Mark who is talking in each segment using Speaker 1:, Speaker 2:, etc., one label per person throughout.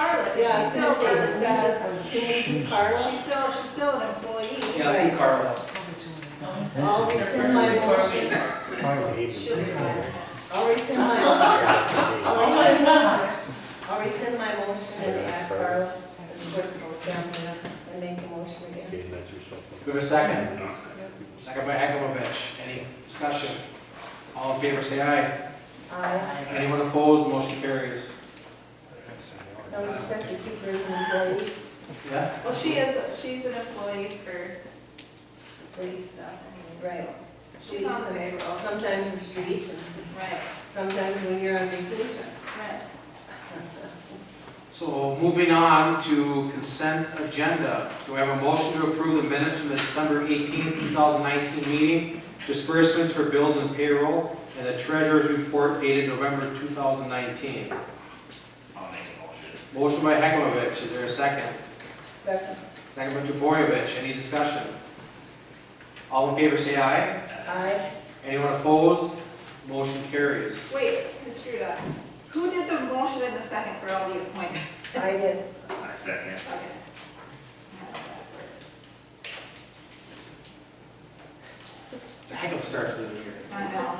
Speaker 1: She's still with us, she's still, she's still an employee.
Speaker 2: Yeah, I think Carl helps.
Speaker 3: I'll rescind my motion,
Speaker 1: She'll be fine.
Speaker 3: I'll rescind my, I'll rescind, I'll rescind my motion and add Carl as clerk pro temp and make the motion again.
Speaker 2: Do we have a second? Second by Hekumovich. Any discussion? All in favor, say aye.
Speaker 3: Aye.
Speaker 2: Anyone opposed, motion carries.
Speaker 3: Now we just have to keep bringing employee,
Speaker 2: Yeah?
Speaker 1: Well, she is, she's an employee for police stuff anyway,
Speaker 3: Right.
Speaker 1: so she's on the payroll.
Speaker 3: sometimes the street, and
Speaker 1: Right,
Speaker 3: sometimes when you're on vacation.
Speaker 1: right.
Speaker 2: So moving on to consent agenda. Do we have a motion to approve the minutes from the December 18, 2019 meeting? Disbursements for bills and payroll, and the treasurer's report dated November 2019.
Speaker 4: I'll make a motion.
Speaker 2: Motion by Hekumovich. Is there a second?
Speaker 3: Second.
Speaker 2: Second by Duboyevich, any discussion? All in favor, say aye.
Speaker 3: Aye.
Speaker 2: Anyone opposed? Motion carries.
Speaker 1: Wait, I screwed up. Who did the motion in the second for all the appointments?
Speaker 3: I did.
Speaker 4: I second.
Speaker 1: Okay. Not backwards.
Speaker 2: It's a heck of a start to the year.
Speaker 1: I know.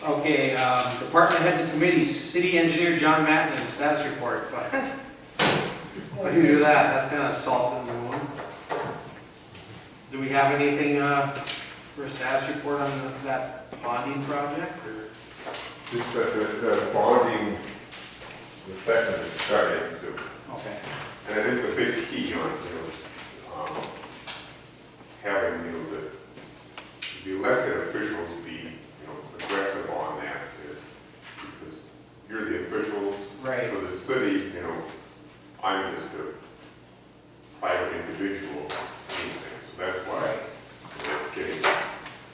Speaker 2: Okay, um, department heads and committees, city engineer John Matlin, status report. But Why do you do that? That's kind of salt in the wound. Do we have anything uh, for a status report on the- that bonding project? or-
Speaker 5: Just that the, the bonding, the session is starting soon.
Speaker 2: Okay,
Speaker 5: And I think the big key on it is, um, having, you know, the, the elected officials be, you know, aggressive on that is, because you're the officials
Speaker 2: right,
Speaker 5: for the city, you know, I'm just a private individual, anything, so that's why
Speaker 2: right.
Speaker 5: it's getting,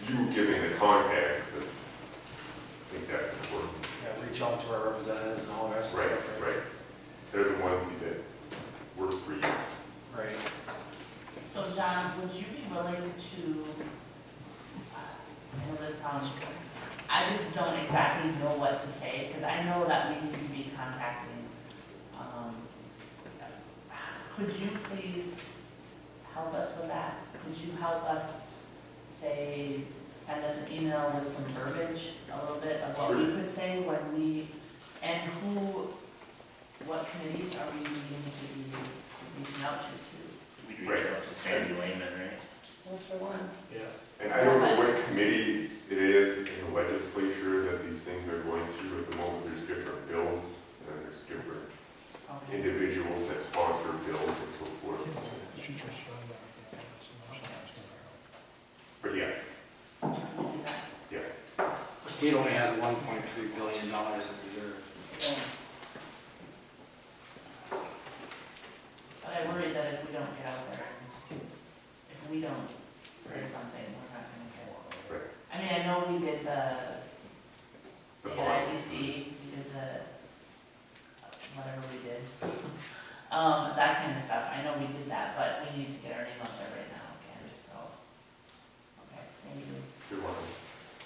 Speaker 5: you giving the context, but I think that's important.
Speaker 2: Yeah, reach out to our representatives and all the rest of
Speaker 5: Right,
Speaker 2: it.
Speaker 5: right. They're the ones that work for you.
Speaker 2: Right.
Speaker 6: So John, would you be willing to, uh, I know this sounds, I just don't exactly know what to say, because I know that we need to be contacting, um, could you please help us with that? Could you help us, say, send us an email with some verbiage, a little bit of what we could say when we, and who, what committees are we needing to be reaching out to? to?
Speaker 4: We do reach out to Sandy Lehman, right?
Speaker 3: One for one.
Speaker 2: Yeah.
Speaker 5: And I don't know what committee it is in the legislature that these things are going through at the moment. There's different bills and there's different
Speaker 6: Okay.
Speaker 5: individuals that sponsor bills and so forth. But yeah, yeah.
Speaker 2: The state only has one point three billion dollars in reserve.
Speaker 6: But I worry that if we don't get out there, if we don't say something, we're not gonna get it.
Speaker 5: Right.
Speaker 6: I mean, I know we did the,
Speaker 5: The
Speaker 6: the E
Speaker 5: bond.
Speaker 6: ICC, we did the, whatever we did. Um, that kind of stuff, I know we did that, but we need to get our name out there right now, okay, so. Okay, thank you.
Speaker 5: Good one,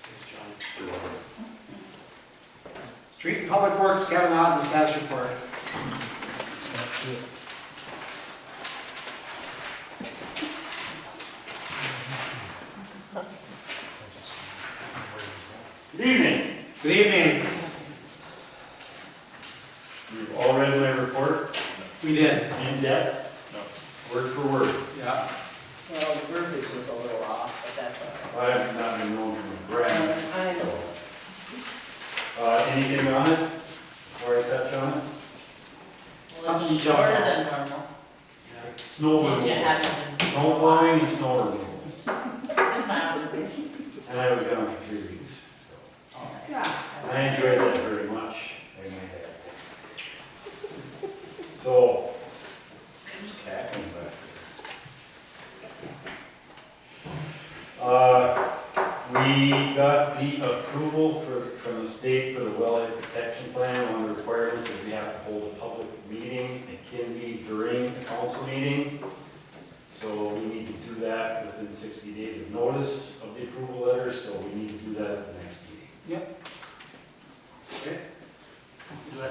Speaker 2: Thanks, John.
Speaker 5: good one.
Speaker 2: Street and Public Works, Kevin Otten, status report.
Speaker 7: Good evening.
Speaker 2: Good evening.
Speaker 7: You've all read my report
Speaker 2: We did.
Speaker 7: in depth, word for word.
Speaker 2: Yeah.
Speaker 3: Well, the verbiage was a little off, but that's all right.
Speaker 7: I have not been known for brand,
Speaker 3: I know.
Speaker 7: so. Uh, anything on it before I touch on it?
Speaker 6: Well,
Speaker 2: Um,
Speaker 6: it's shorter than normal.
Speaker 7: Snow
Speaker 6: Did you
Speaker 7: removal.
Speaker 6: have it?
Speaker 7: Snow plowing and snow removal.
Speaker 6: This is my observation.
Speaker 7: And I was gone for three weeks, so.
Speaker 1: Yeah.
Speaker 7: And I enjoyed that very much. I might add. So. Who's cackling back there? Uh, we got the approval for, from the state for the wellhead protection plan. One of the requirements is we have to hold a public meeting. It can be during the council meeting.